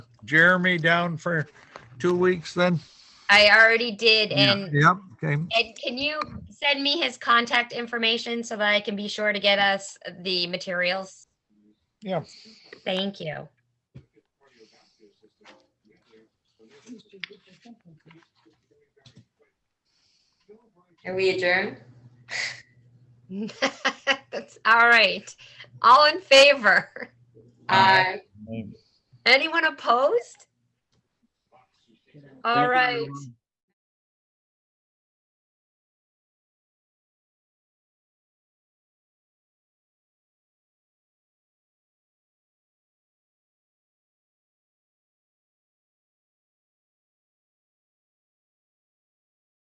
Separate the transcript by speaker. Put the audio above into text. Speaker 1: Jeremy down for two weeks then?
Speaker 2: I already did,
Speaker 1: Yeah,
Speaker 2: and
Speaker 1: Yep, okay.
Speaker 2: and can you send me his contact information so that I can be sure to get us the materials?
Speaker 1: Yeah.
Speaker 2: Thank you.
Speaker 3: Are we adjourned?
Speaker 2: That's all right. All in favor?
Speaker 3: Aye.
Speaker 2: Anyone opposed? All right.